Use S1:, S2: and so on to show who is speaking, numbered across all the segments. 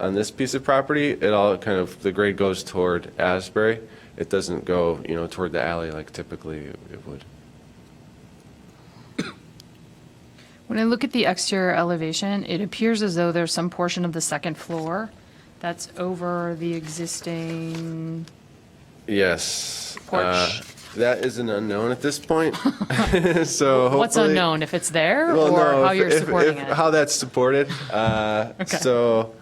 S1: on this piece of property, it all kind of, the grade goes toward Asbury. It doesn't go, you know, toward the alley like typically it it would.
S2: When I look at the exterior elevation, it appears as though there's some portion of the second floor that's over the existing,
S1: Yes.
S2: Porch.
S1: uh, That is an unknown at this point, so hopefully.
S2: what's unknown, if it's there
S1: Well,
S2: or
S1: no,
S2: how
S1: if-
S2: you're
S1: if-
S2: supporting
S1: if-
S2: it?
S1: How that's supported. Uh,
S2: Okay.
S1: So,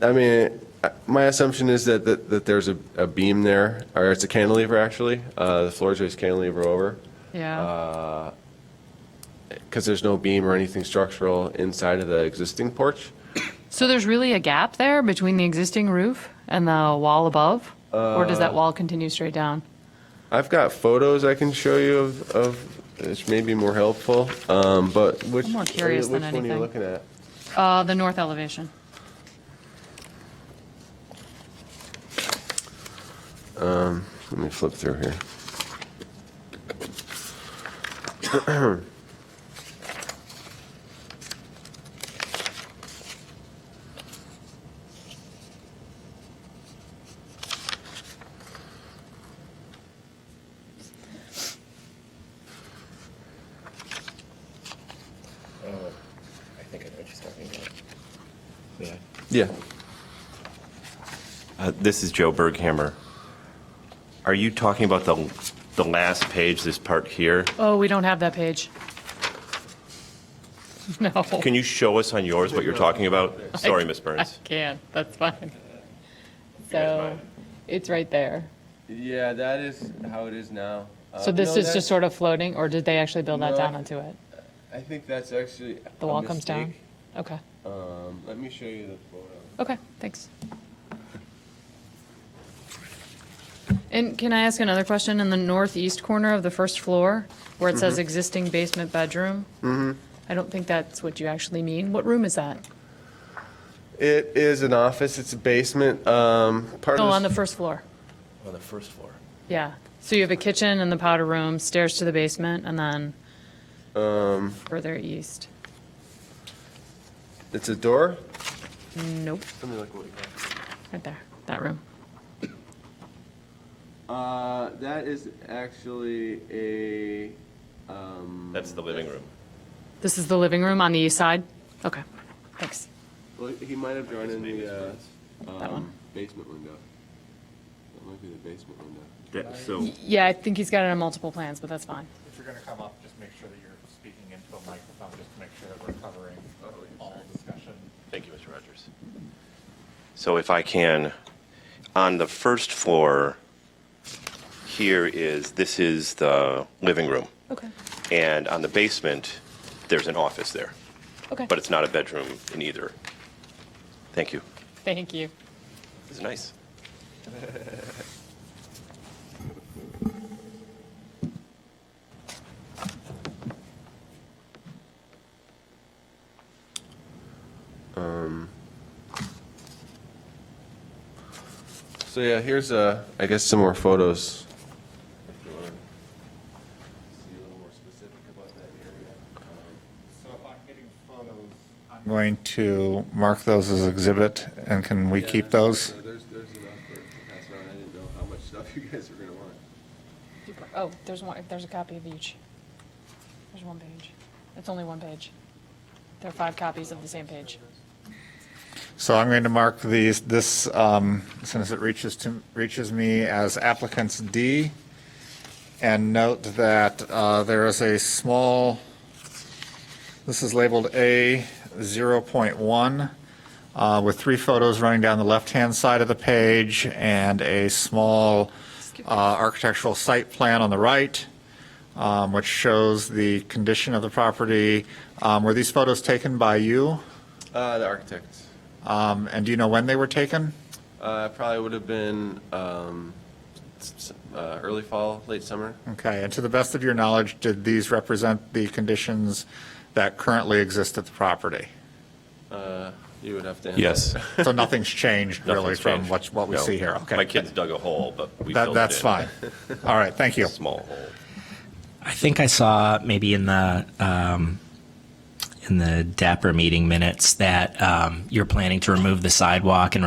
S1: I mean, I- my assumption is that, that, that there's a, a beam there, or it's a cantilever, actually. Uh, The floor joist cantilever over, Uh,
S2: Yeah,
S1: because there's no beam or anything structural inside of the existing porch.
S2: so there's really a gap there between the existing roof and the wall above? Or does that
S1: Uh,
S2: wall continue straight down?
S1: I've got photos I can show you of, of, which may be more helpful, um, but which.
S2: I'm more curious
S1: Which
S2: than
S1: one are
S2: anything.
S1: you looking at?
S2: Uh, the north elevation.
S1: Let me flip through here.
S3: I think I know what she's talking about. Yeah.
S1: Yeah.
S3: Uh, This is Joe Berghammer. Are you talking about the, the last page, this part here?
S2: Oh, we don't have that page. No.
S3: Can you show us on yours what you're talking about? Sorry, Miss Burns.
S2: I can't, that's fine.
S3: guys
S2: So,
S3: mind?
S2: it's right there.
S1: Yeah, that is how it is now. Uh,
S2: So this is just sort of floating, or did they actually build that
S1: No,
S2: down
S1: I-
S2: onto it?
S1: I think that's actually. a
S2: The wall comes down?
S1: mistake.
S2: Okay,
S1: Um, let me show you the photo.
S2: okay, thanks. And can I ask another question? In the northeast corner of the first floor, where it says existing basement bedroom? I don't think that's what you actually mean. What room is that?
S1: It is an office. It's a basement. Um, part
S2: Oh,
S1: of
S2: on the first floor.
S3: On the first floor.
S2: Yeah, so you have a kitchen and the powder room, stairs to the basement, and then
S1: um,
S2: further east.
S1: It's a door.
S2: Nope,
S1: Let me look what we
S2: right there, that room.
S1: got. Uh, that is actually a. Um,
S3: That's the living room.
S2: This is the living room on the east side? Okay, thanks.
S1: well, he might have drawn in the uh,
S2: That one.
S1: basement window. That might be the basement window.
S3: So,
S2: Yeah, I think he's got it on multiple plans, but that's fine.
S4: If you're gonna come up, just make sure that you're speaking into a microphone, just to make sure that we're covering all discussion.
S3: thank you, Mr. Rogers. So if I can, on the first floor, here is, this is the living room.
S2: Okay,
S3: And on the basement, there's an office there,
S2: okay.
S3: but it's not a bedroom in either. Thank you.
S2: Thank you.
S3: This is nice.
S1: Um, So yeah, here's uh, I guess some more photos. um,
S4: So if I'm getting photos. I'm going to mark those as exhibit, and can we keep those?
S1: There's, there's enough to pass around. I didn't know how much stuff you guys were gonna want.
S2: Oh, there's one, there's a copy of each. There's one page. It's only one page. There are five copies of the same page.
S4: So I'm going to mark these, this, um, as soon as it reaches to, reaches me as applicants D. And note that, uh, there is a small, this is labeled A zero point one, uh, with three photos running down the left-hand side of the page and a small, uh, architectural site plan on the right um, which shows the condition of the property. Um, Were these photos taken by you?
S1: Uh, the architect.
S4: Um, And do you know when they were taken?
S1: Uh, probably would have been um, s- s- uh, early fall, late summer.
S4: Okay, and to the best of your knowledge, did these represent the conditions that currently exist at the property?
S1: Uh, you would have to.
S3: Yes.
S4: So nothing's changed really
S3: Nothing's
S4: from
S3: changed.
S4: what, what we
S3: No.
S4: see here? Okay,
S3: My kids dug a hole, but we
S4: That-
S3: filled it
S4: That's
S3: in.
S4: fine. All right, thank you.
S3: Small hole.
S5: I think I saw maybe in the um, in the Dapper meeting minutes that um, you're planning to remove the sidewalk and